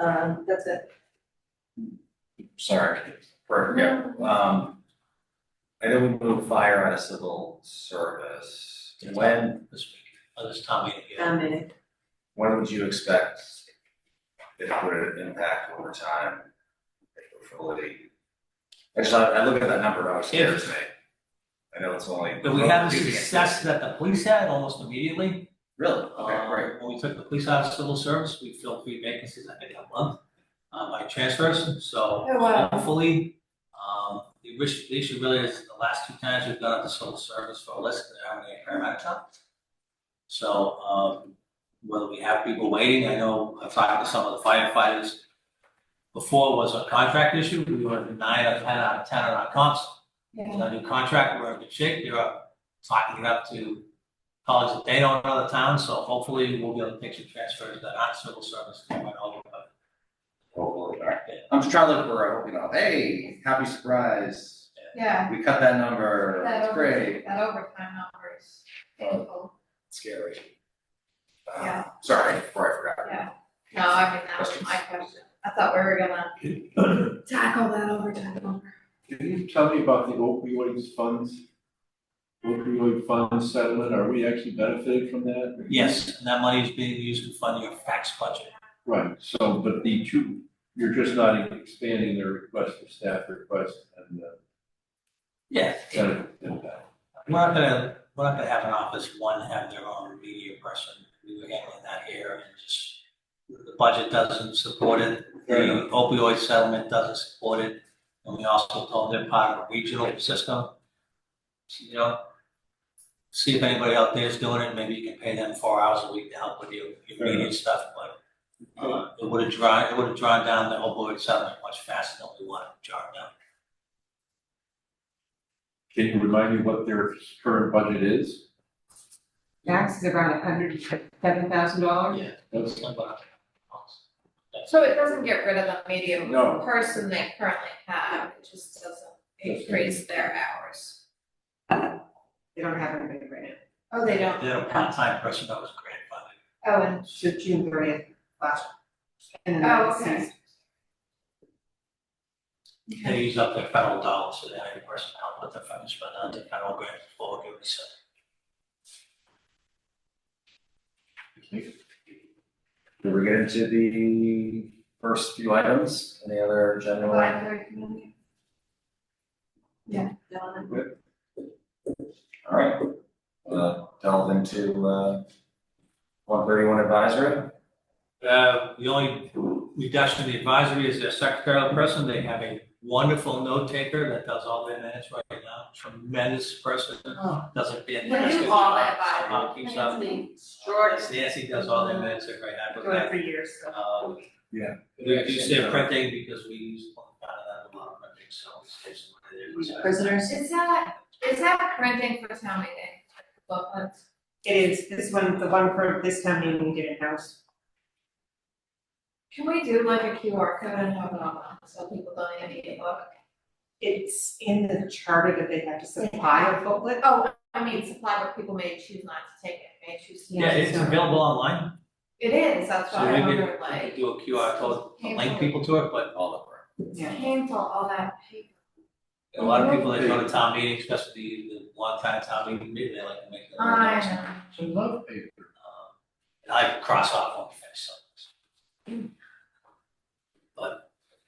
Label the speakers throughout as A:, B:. A: Um, that's it.
B: sorry, for, yeah, um. I know we moved fire out of civil service, when,
C: This week, by this time we get
A: Town meeting.
B: when would you expect it would impact over time? Facility? I just, I, I look at that number, I was scared today. I know it's only.
C: But we had the success that the police had almost immediately.
B: Really? Um, Okay,
C: Uh,
B: great.
C: When we took the police out of civil service, we filled three vacancies, I think, a month, uh, by transfers, so
A: Oh,
C: hopefully, um, the wish, the issue really is the last two times we've gone out to civil service for a list, there aren't any paramedics on. So, um, whether we have people waiting, I know, I've talked to some of the firefighters. Before was a contract issue, we were nine out of ten out of ten on our comps, with our new contract, we're in good shape, they're up, talking it up to colleges that they don't know the town, so hopefully we'll be able to pick some transfers that aren't civil service, they might all, but
B: Hopefully, all right. I'm just trying to look for, you know, hey, happy surprise,
D: Yeah,
B: we cut that number,
D: that
B: it's
D: over,
B: great,
D: that overtime number is painful,
B: scary. Uh,
D: Yeah.
B: Sorry, before I forgot.
D: yeah. No, I mean, that was my question. I thought we were gonna tackle that overtime number.
E: Can you tell me about the opioids funds? Opioid fund settlement, are we actually benefited from that?
C: yes, and that money is being used to fund your fax budget.
E: Right, so, but the two, you're just not expanding their request for staff request and the
C: Yeah.
E: benefit impact.
C: We're not gonna, we're not gonna have an office, one have their own media person, we were handling that here, and just, the budget doesn't support it, the opioid settlement doesn't support it, and we also told them they're part of a regional system. You know, see if anybody out there is doing it, maybe you can pay them four hours a week to help with your, your media stuff, but, uh, it would have drawn, it would have drawn down the opioid settlement much faster than we wanted to draw it down.
E: Can you remind me what their current budget is?
F: Max is around hundred and seven thousand dollars.
E: That's,
D: So it doesn't get rid of the medium
E: No.
D: person they currently have, it just doesn't increase their hours.
F: They don't have anybody right now.
D: Oh, they don't?
C: They had a part-time person that was grandfathered.
D: Oh, and,
F: So June thirtieth, last. and then
D: Oh,
F: that's
D: okay.
F: season.
D: okay,
C: They use up their federal dollars, so they have a person help with the funds, but not the federal grant for doing so.
B: Did we get into the first few items, any other general?
D: library community.
A: Donna.
B: Alright, uh, delve into, uh, one thirty-one advisory,
C: Uh, the only reduction in the advisory is their secretarial person, they have a wonderful note taker that does all their minutes right now, tremendous person, does a fantastic
D: Well, Oh. you
C: job.
D: all that advisory.
C: somehow Uh, keeps up. Nancy does all their minutes, they're very happy with
F: Doing it
C: that.
F: for years, so.
C: Uh,
B: Yeah.
C: We reduce their printing because we use a lot of that, a lot of printing, so it's just what it is.
A: Prisoners.
D: Is that, is that printing for town meeting? Booklets?
F: It is, this one, the one for this time meeting we did in house.
D: Can we do like a QR code and have it online, so people don't even need a book?
F: It's in the charter that they have to supply a booklet.
D: Oh, I mean, supply, but people may choose not to take it, may choose to.
C: Yeah, it's available online.
D: It is, that's
C: So
D: why I
C: we could,
D: wonder,
C: we could
D: like,
C: do a QR code to link people to it, but
B: all of them.
D: it's painful, all that paper.
C: a lot of people that go to town meetings, especially the one time town meeting, maybe they like to make. their own notes. Um,
E: it's a love paper.
C: And I cross off on the finish sentence.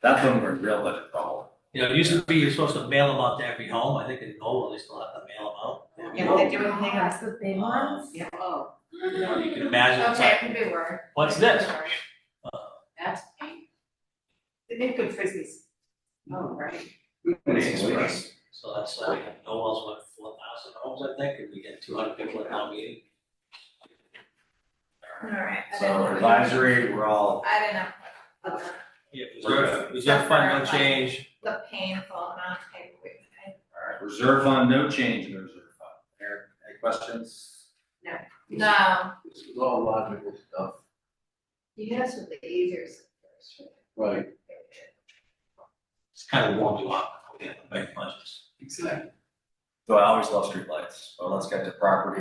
B: That's when we're real budget problem.
C: You know, it used to be you're supposed to mail them out to every home, I think in Noel, they still have to mail them out.
F: Yeah, they do anything else.
A: That's the big
C: Um,
A: ones.
F: Yeah, oh.
C: You know, you can imagine, it's
D: Okay, it
C: like,
D: can be word.
C: what's this?
A: That's.
F: They make good frisbees. Oh, right.
B: Express.
C: So that's like, Noel's what, four thousand homes, I think, and we get two hundred people at town meeting.
D: Alright. I didn't
B: So
D: know.
B: advisory, we're all,
D: I didn't know. about that.
C: Yeah, reserve, reserve fund, no change,
D: The painful amount of paper we had.
B: alright, reserve fund, no change in the reserve fund. Eric, any questions?
D: No,
E: This is all logical stuff.
D: you guys were the easier first,
E: Right.
C: it's kind of warmed you up, we have to make budgets.
B: Exactly. So I always love streetlights, so let's get to property